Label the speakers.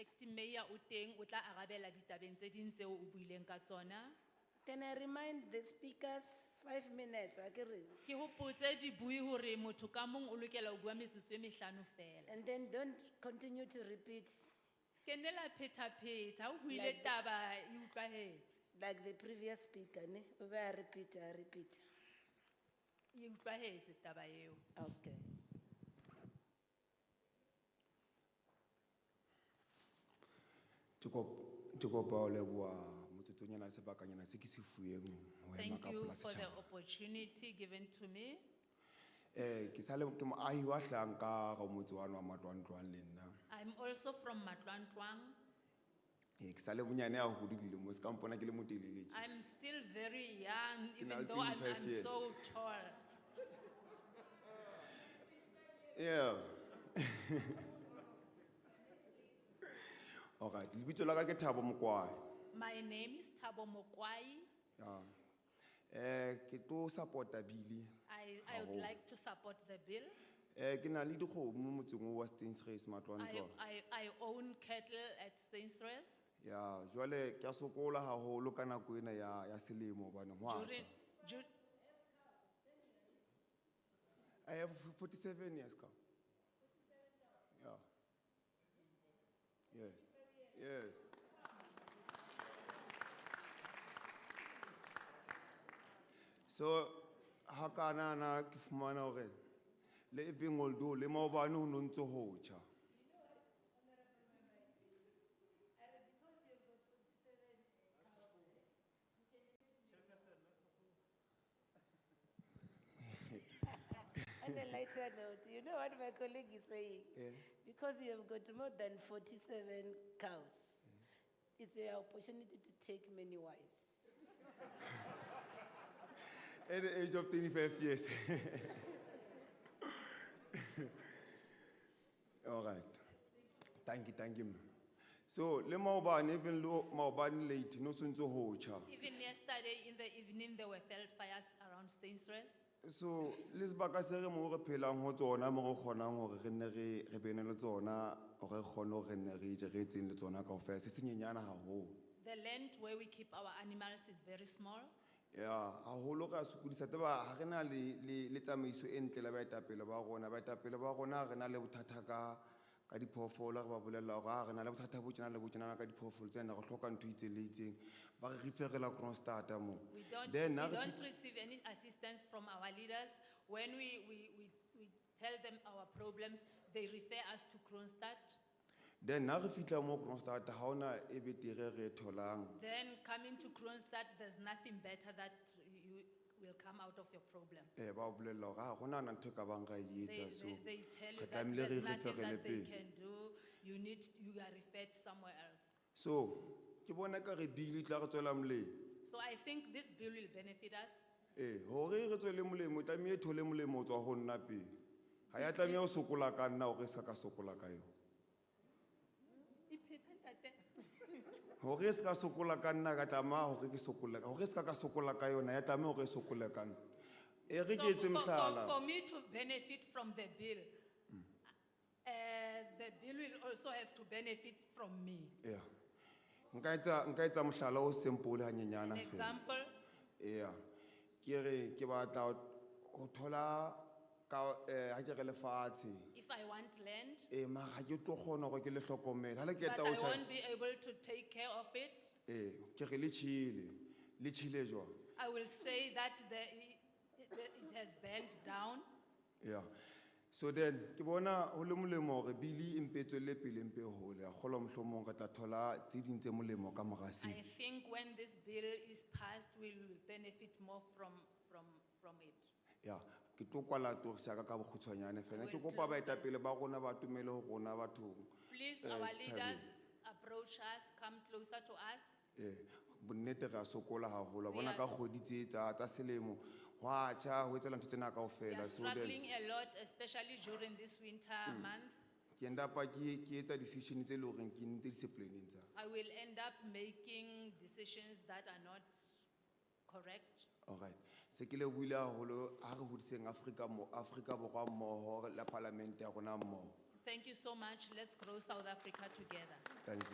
Speaker 1: meya o teng o tla arabela ditabeng tse ding tseo o buileng ka tsona
Speaker 2: Can I remind the speakers, five minutes, akere?
Speaker 1: ke hopotse dibui hore motho ka mong o lokela ho bua metsotso e mehlano fela
Speaker 2: And then don't continue to repeat
Speaker 1: ke nne la phetapheta ha o buile
Speaker 2: Like-
Speaker 1: taba e utlwahetse
Speaker 2: like the previous speaker, ne? Ube a repeat, a repeat.
Speaker 1: e utlwahetse taba eo
Speaker 2: Okay.
Speaker 3: Ke kop- ke kopa ho leboha motsotsonyana le sebakanyana se ke se fueng ho ema
Speaker 1: thank
Speaker 3: ka
Speaker 1: you
Speaker 3: pola
Speaker 1: for the
Speaker 3: setjhaba.
Speaker 1: opportunity given to me
Speaker 3: Eh, ke sale ke moahi wa Hlanka ka motse wa wa Matlwantlwang le nna.
Speaker 1: i'm also from matlwantlwang
Speaker 3: Eh, ke sale monyane ya ho dilemo se ka mpona ke le motelele tje.
Speaker 1: i'm still very young
Speaker 3: na
Speaker 1: even
Speaker 3: le
Speaker 1: though i'm,
Speaker 3: 25
Speaker 1: I'm
Speaker 3: years.
Speaker 1: so tall
Speaker 3: Yeah. Alright, lebitso la ka ke Thabo Mokwai.
Speaker 1: my name is tabo mokwai
Speaker 3: Yeah. Eh, ke tlo support-a bili.
Speaker 1: I, I would
Speaker 3: Haholo.
Speaker 1: like to support the bill.
Speaker 3: Eh, ke na le dikgomo motseng oo wa Stensraes Matlwantlwang.
Speaker 1: I, I, I own cattle at Stainsres.
Speaker 3: Ya, jwale ke a sokola haholo ka nako ena ya ya selemo hobane ho a
Speaker 1: During,
Speaker 3: tjha.
Speaker 1: dur-
Speaker 3: I have 47 years ka. Yeah. Yes. Yes. So hakana na ke fumana hore le ebeng oldo le maobane ho no ntso ho tjha.
Speaker 2: On a lighter note, you know what my colleague is saying?
Speaker 3: Yeah.
Speaker 2: Because you have got more than forty-seven cows, it's an opportunity to take many wives.
Speaker 3: At the age of 25 years. All right. Thank you, thank you. ma'am. So, le maobane, even lo maobane late, no sunzo hocha.
Speaker 1: even yesterday in the evening, there were felt fires around Stainsres.
Speaker 3: So, le sebaka se re mo re phelang ho tsona mo re kgonang hore re nne re re bene le tsona hore re kgone hore re nne re je re etseng le tsona kaofela se senyenyana haholo.
Speaker 1: The land where we keep our animals is very small.
Speaker 3: ya haholo re a sokodisa tseba ha re na le le- le tsamaiso e ntle la baetapele ba rona baetapele ba rona re na le bothata ka ka diphoofolo re ba bolelela hore ha re na le bothata bo tjena le bo tjena ka diphoofolo tsena re hloka ntho e itseng le itseng ba re referela kronstata moo
Speaker 1: We don't,
Speaker 3: then ha
Speaker 1: we
Speaker 3: re
Speaker 1: don't
Speaker 3: fihla-
Speaker 1: receive any assistance from our leaders. When we, we, we, we tell them our problems, they refer us to Kronstadt.
Speaker 3: then ha re fitlha moo kronstata ha ona e betere re e tholang
Speaker 1: Then coming to Kronstadt, there's nothing better that you will come out of your problem.
Speaker 3: um ba bolelela hore ha gona na ntho e ka bang ra e
Speaker 1: They,
Speaker 3: etsa so
Speaker 1: they, they tell you
Speaker 3: re
Speaker 1: that
Speaker 3: tlamehile
Speaker 1: there's
Speaker 3: re e
Speaker 1: nothing that
Speaker 3: referele
Speaker 1: they
Speaker 3: pele
Speaker 1: can do, you need, you are referred somewhere else.
Speaker 3: so ke bona ka re bile tla re tswela molemo
Speaker 1: So I think this bill will benefit us.
Speaker 3: ee gore Eh, re tswele molemo o tlamehile thole molemo o tswa go nna pele ga ya tlameya go sokola ka nna gore e sa ka sokola ka yone gore e se ka sokola ka nna ka tlamaa gore ke sokole ka gore e se ka ka sokola ka yona ya tlameya gore e sokole ka nna e re
Speaker 1: So
Speaker 3: ke etse
Speaker 1: for- for- For
Speaker 3: motlhala
Speaker 1: me to benefit from the bill, uh, the bill will also have to benefit from me.
Speaker 3: ea nka etsa- nka etsa motlhala o sempole
Speaker 1: An
Speaker 3: ganyenyana fela
Speaker 1: example,
Speaker 3: ea ke re ke batla go thola ka ga ke re lefatshe
Speaker 1: if I want land,
Speaker 3: ee mara ga ke tlo kgona gore ke le tlhokomela ga le
Speaker 1: but
Speaker 3: keta
Speaker 1: I
Speaker 3: o tjha-
Speaker 1: won't be able to take care of it,
Speaker 3: ee ke re le tšhile le tšhile jwang
Speaker 1: I will say that the, it it has burned down.
Speaker 3: ya so then ke bona go le molemo gore bili e mpe e tswelele pele mpe e gole a kgolwa motlhomong re tla thola tse ding tse molemo ka
Speaker 1: I
Speaker 3: mogaseng
Speaker 1: think when this bill is passed, we'll benefit more from, from, from it.
Speaker 3: ya ke tlo kwala torisa ka ka bokgutshwanyane fela ke kopa baetapele ba rona ba tumele go rona bathong
Speaker 1: Please,
Speaker 3: Eh,
Speaker 1: our
Speaker 3: setjhabeng.
Speaker 1: leaders, approach us, come closer to us.
Speaker 3: ee bonnete re a sokola gagolo a
Speaker 1: Re
Speaker 3: bona
Speaker 1: a-
Speaker 3: ka kgodi tse tsa tsa selemo go a tšha go etsela ntho tsena kao
Speaker 1: We
Speaker 3: fela
Speaker 1: are
Speaker 3: so then
Speaker 1: struggling a lot, especially during this winter months.
Speaker 3: ke endapa ke ke etsa decision tse e le goreng ke ntse disciplineng tsa
Speaker 1: I will end up making decisions that are not correct.
Speaker 3: Alright. Se ke le buile haholo ha re hodiseng Afrika mo Afrika borwa mmoho la parliament ya rona mmoho.
Speaker 1: Thank you so much. Let's grow South Africa together.
Speaker 3: Thank you.